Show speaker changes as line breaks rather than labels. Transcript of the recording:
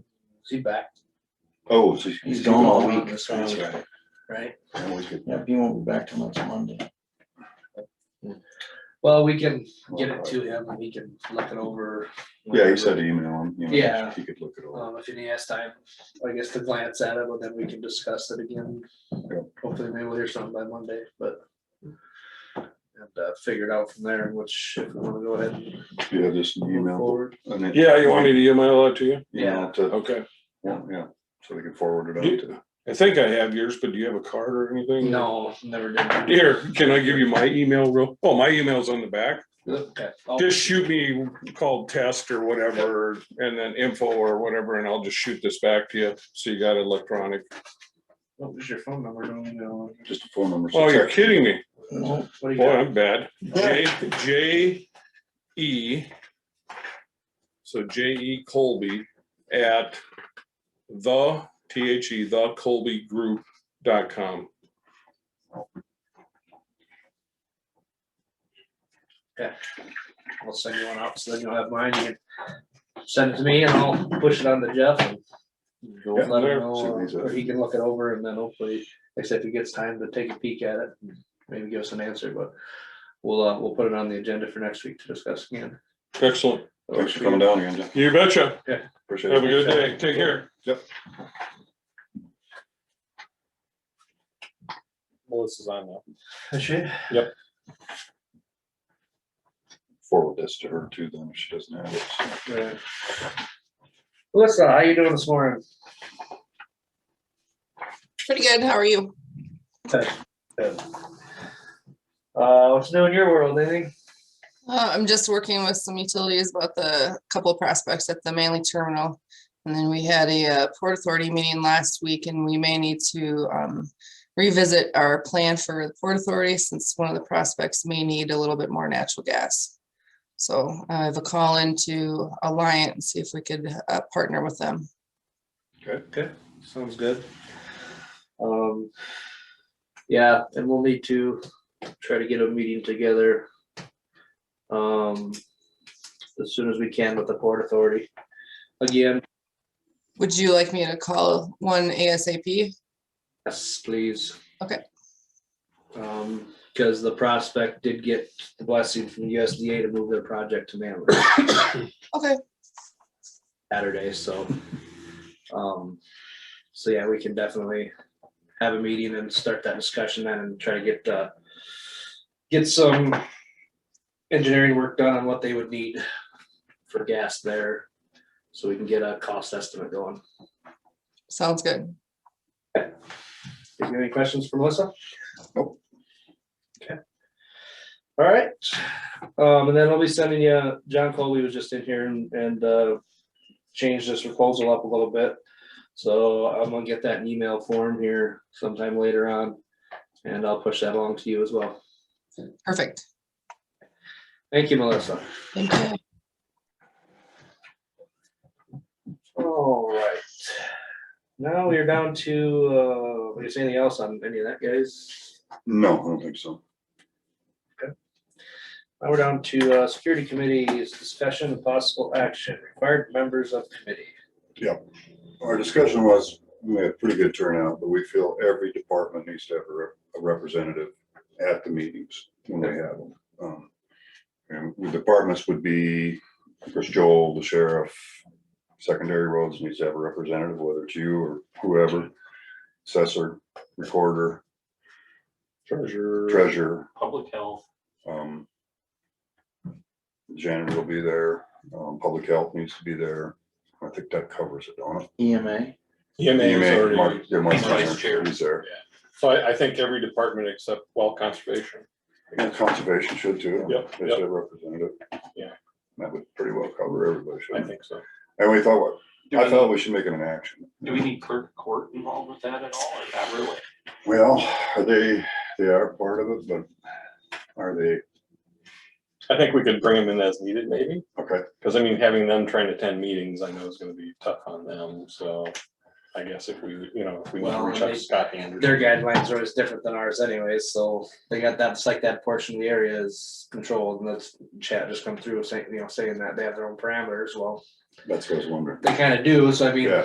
Is he back?
Oh, so
He's
he's gone all
gone
week.
this
That's
round.
right.
Right?
I always get-
Yep, he won't be back till next Monday.
Well, we can get it to him and he can look it over.
Yeah, he said email him. you know,
Yeah.
He could look it over.
Um, if he has time, I guess to glance at it, but then we can discuss it again. Hopefully maybe we'll hear something by Monday, but. And, uh, figure it out from there, which if we wanna go ahead and
Do you have this
move
email?
forward.
and then-
Yeah, you want me to email that to you?
Email it to-
Okay.
Yeah, yeah, so they can forward it
Do-
on to.
I think I have yours, but do you have a card or anything?
No, never did. that.
Here, can I give you my email real? Oh, my email's on the back.
Okay. I'll-
Just shoot me called test or whatever and then info or whatever, and I'll just shoot this back to you. So you got electronic.
What was Oh, your phone number? Don't you know?
Just a phone number. so
Oh, you're
check.
kidding me.
No,
What do you
Boy,
got?
I'm bad. J, J E. So J E Colby at the, T H E, the Colby Group dot com.
I'll send you one out, so then you'll have mine, you can send it to me and I'll push it on to Jeff and go
Yeah,
let
there.
him know,
See what he
or
says.
he can look it over and then hopefully, like I said, if he gets time to take a peek at it, maybe give us an answer, but we'll, uh, we'll put it on the agenda for next week to discuss again.
Excellent.
Thanks for coming down again, Jeff.
You betcha.
Appreciate it.
Have a good day. Take care. Melissa's on now.
Forward this to her too, then if she doesn't have it. so.
Right. Melissa, how you doing this morning?
Pretty good. How are you?
Uh, what's new in your world, anything?
Uh, I'm just working with some utilities about the couple of prospects at the Manly terminal. And then we had a uh, Port Authority meeting last week and we may need to um, revisit our plan for the Port Authority since one of the prospects may need a little bit more natural gas. So uh, I have a call into Alliance, see if we could uh, partner with them.
Okay, sounds good. Um, yeah, and we'll need to try to get a meeting together. Um, as soon as we can with the Port Authority. Again,
Would you like me to call one ASAP?
yes, please.
Okay.
Um, because the prospect did get the blessing from USDA to move their project to Manly.
Okay,
Saturday, so. Um, so yeah, we can definitely have a meeting and start that discussion then and try to get, uh, get some engineering work done on what they would need for gas there. So we can get a cost estimate going.
sounds good.
If you have any questions for Melissa?
Nope.
Okay. All right, um, and then I'll be sending you, John Colby was just in here and, and, uh, changed this proposal up a little bit. So I'm gonna get that in email form here sometime later on, and I'll push that along to you as well.
Perfect.
Thank you, Melissa.
Thank you.
All right. Now we're down to, uh, is anything else on any of that, guys?
No, I don't think so.
Now we're down to uh, Security Committee's discussion of possible action, required members of committee.
Our discussion was, we had pretty good turnout, but we feel every department needs to have a rep- a representative at the meetings when we have them. Um, And the departments would be, of course, Joel, the sheriff, secondary roads needs to have a representative, whether it's you or whoever. Assessor, recorder,
Treasure.
treasurer,
public health,
um. Janitor will be there, um, public health needs to be there. I think that covers it, don't it?
EMA.
EMA is
You may-
already,
Mark- yeah, Mark's
He's
there.
vice chair.
He's there.
so I, I think every department except well conservation.
And conservation should too.
Yep,
They
yep.
should have representative.
Yeah.
That would pretty well cover everybody,
I
shouldn't it?
think so.
And we thought,
Do
I
we,
thought we should make it an action.
do we need clerk of court involved with that at all, or not really?
Well, are they, they are part of it, but are they,
I think we could bring them in as needed maybe,
okay,
because I mean, having them trying to attend meetings, I know is gonna be tough on them, so. I guess if we, you know, if we want to
Well,
reach out
they-
to Scott Anderson.
Their guidelines are always different than ours anyways, so they got that, it's like that portion of the area is controlled, and that's, chat just come through saying, you know, saying that they have their own parameters, well,
that's what I was wondering.
they kind of do, so I mean,
Yeah.